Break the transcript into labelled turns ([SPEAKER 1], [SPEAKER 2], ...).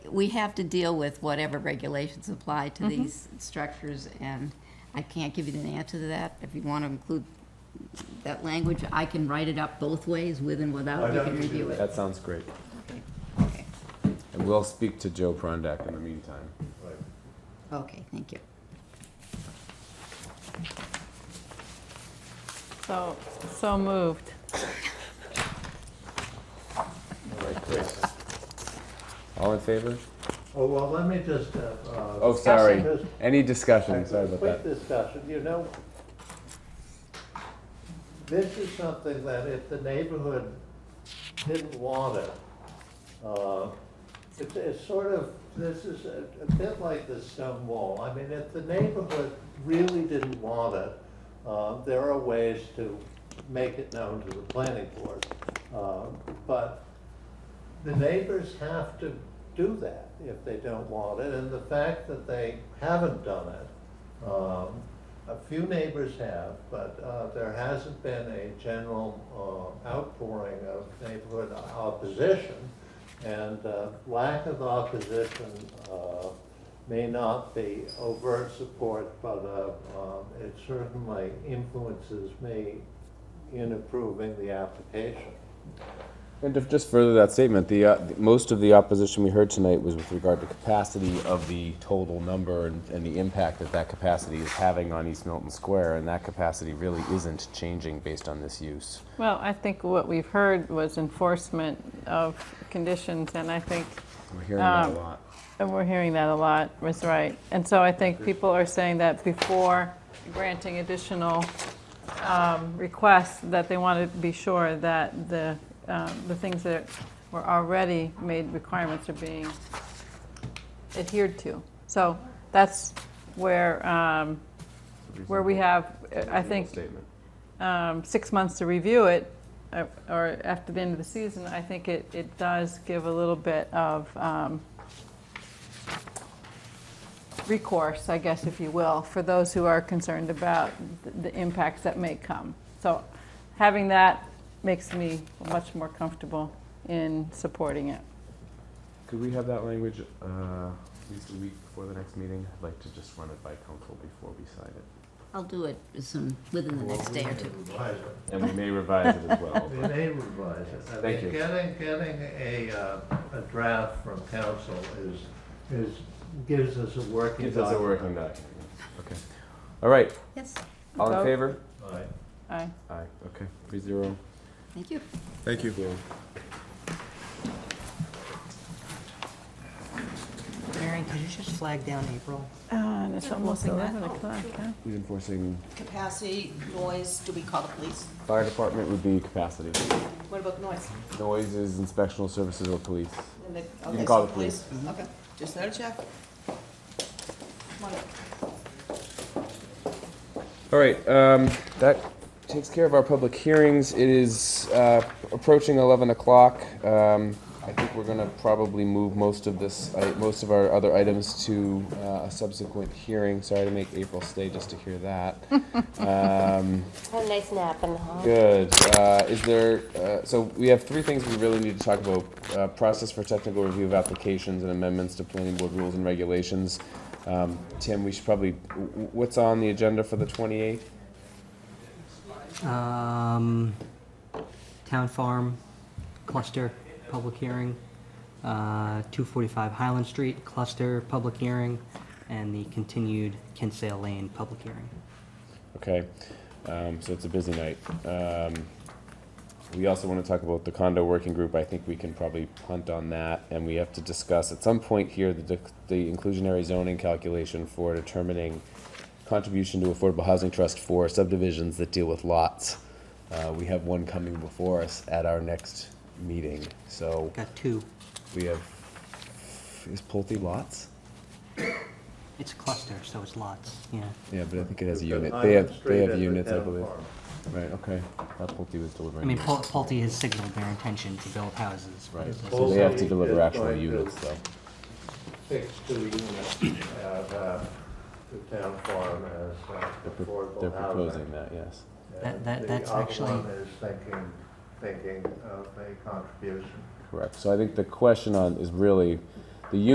[SPEAKER 1] we have to deal with whatever regulations apply to these structures, and I can't give you an answer to that. If you want to include that language, I can write it up both ways, with and without,
[SPEAKER 2] I'd
[SPEAKER 1] you
[SPEAKER 2] have
[SPEAKER 1] can
[SPEAKER 2] to do
[SPEAKER 1] review it.
[SPEAKER 3] That sounds great.
[SPEAKER 1] Okay. Okay,
[SPEAKER 3] And we'll speak to Joe Prondak in the meantime.
[SPEAKER 2] Right.
[SPEAKER 1] Okay. thank you.
[SPEAKER 4] So, so moved.
[SPEAKER 3] All right, great. All in favor?
[SPEAKER 2] Oh, well, let me just, uh, uh,
[SPEAKER 3] Oh, sorry.
[SPEAKER 2] Discussion.
[SPEAKER 3] Any discussion? Sorry about
[SPEAKER 2] Quick
[SPEAKER 3] that.
[SPEAKER 2] discussion, you know, this is something that if the neighborhood didn't want it, uh, it's, it's sort of, this is a a bit like the stone wall. I mean, if the neighborhood really didn't want it, uh, there are ways to make it known to the planning board. Uh, But the neighbors have to do that if they don't want it, and the fact that they haven't done it, um, a few neighbors have, but, uh, there hasn't been a general, uh, outpouring of neighborhood opposition. And, uh, lack of opposition, uh, may not be overt support, but, uh, um, it certainly influences me in approving the application.
[SPEAKER 3] And to just further that statement, the, uh, the- most of the opposition we heard tonight was with regard to capacity of the total number and, and the impact that that capacity is having on East Milton Square, and that capacity really isn't changing based on this use.
[SPEAKER 4] Well, I think what we've heard was enforcement of conditions, and I think,
[SPEAKER 3] We're hearing that a
[SPEAKER 4] Um,
[SPEAKER 3] lot.
[SPEAKER 4] and we're hearing that a lot, Ms. Wright. And so I think people are saying that before granting additional um, requests, that they want to be sure that the, um, the things that were already made requirements are being adhered to. So that's where, um, where we have, I think,
[SPEAKER 3] Statement.
[SPEAKER 4] um, six months to review it, uh, or after the end of the season, I think it, it does give a little bit of um, recourse, I guess, if you will, for those who are concerned about th- the impacts that may come. So having that makes me much more comfortable in supporting it.
[SPEAKER 3] Could we have that language uh, at least a week before the next meeting? I'd like to just run it by council before we sign it.
[SPEAKER 1] I'll do it soon, within the next day or two.
[SPEAKER 2] Revise it.
[SPEAKER 3] And we may revise it as well.
[SPEAKER 2] They may revise it. I mean,
[SPEAKER 3] Thank you.
[SPEAKER 2] Getting, getting a, uh, a draft from council is, is, gives us a working
[SPEAKER 3] Gives us a
[SPEAKER 2] document.
[SPEAKER 3] working document. Okay. All right,
[SPEAKER 1] Yes,
[SPEAKER 3] all in
[SPEAKER 4] Vote.
[SPEAKER 3] favor?
[SPEAKER 2] Right.
[SPEAKER 4] Aye.
[SPEAKER 3] Aye, okay, three zero.
[SPEAKER 1] thank you.
[SPEAKER 3] Thank you.
[SPEAKER 5] Marion, could you just flag down April?
[SPEAKER 4] And it's Uh, almost
[SPEAKER 5] looking at-
[SPEAKER 4] 11 o'clock, huh?
[SPEAKER 3] Who's enforcing,
[SPEAKER 5] Capacity, noise, do we call the police?
[SPEAKER 3] fire department would be capacity.
[SPEAKER 5] What about noise?
[SPEAKER 3] Noises, inspectional services or police.
[SPEAKER 5] And the-
[SPEAKER 3] can
[SPEAKER 5] okay,
[SPEAKER 3] call
[SPEAKER 5] so
[SPEAKER 3] the police.
[SPEAKER 5] Okay, just let her check. Come on up.
[SPEAKER 3] All right, um, that takes care of our public hearings. It is, uh, approaching eleven o'clock. Um, I think we're gonna probably move most of this, I most of our other items to, uh, a subsequent hearing. Sorry to make April stay just to hear that. Um,
[SPEAKER 6] Have a nice nap in the hall.
[SPEAKER 3] Good. Uh, is there, uh, so we have three things we really need to talk about. Uh, process for technical review of applications and amendments to planning board rules and regulations. Um, Tim, we should probably, w- w- what's on the agenda for the twenty-eighth?
[SPEAKER 7] Um, Town Farm Cluster Public Hearing, uh, 245 Highland Street Cluster Public Hearing, and the continued Kinsale Lane Public Hearing.
[SPEAKER 3] Okay, um, so it's a busy night. Um, we also want to talk about the condo working group. I think we can probably punt on that, and we have to discuss at some point here the, dec- the inclusionary zoning calculation for determining contribution to affordable housing trust for subdivisions that deal with lots. Uh, we have one coming before us at our next meeting, so
[SPEAKER 7] Got two.
[SPEAKER 3] we have, is Pulte lots?
[SPEAKER 7] It's cluster, so it's lots, yeah.
[SPEAKER 3] Yeah, but I think it has a unit.
[SPEAKER 2] Island
[SPEAKER 3] They have,
[SPEAKER 2] Street
[SPEAKER 3] they have
[SPEAKER 2] and the
[SPEAKER 3] units, I
[SPEAKER 2] town
[SPEAKER 3] believe.
[SPEAKER 2] farm.
[SPEAKER 3] Right, okay. That Pulte was delivering.
[SPEAKER 7] I mean,
[SPEAKER 3] units.
[SPEAKER 7] Pul- Pulte has signaled their intention to build houses.
[SPEAKER 3] Right, so
[SPEAKER 2] Also,
[SPEAKER 3] they have to
[SPEAKER 2] you
[SPEAKER 3] deliver
[SPEAKER 2] just
[SPEAKER 3] actual
[SPEAKER 2] going to-
[SPEAKER 3] units, though.
[SPEAKER 2] Fix two units at, uh, the town farm as uh,
[SPEAKER 3] They're pro-
[SPEAKER 2] affordable housing.
[SPEAKER 3] They're proposing that, yes.
[SPEAKER 2] And
[SPEAKER 7] That- that- that's actually-
[SPEAKER 2] The other one is thinking, thinking of a contribution.
[SPEAKER 3] Correct. So I think the question on, is really,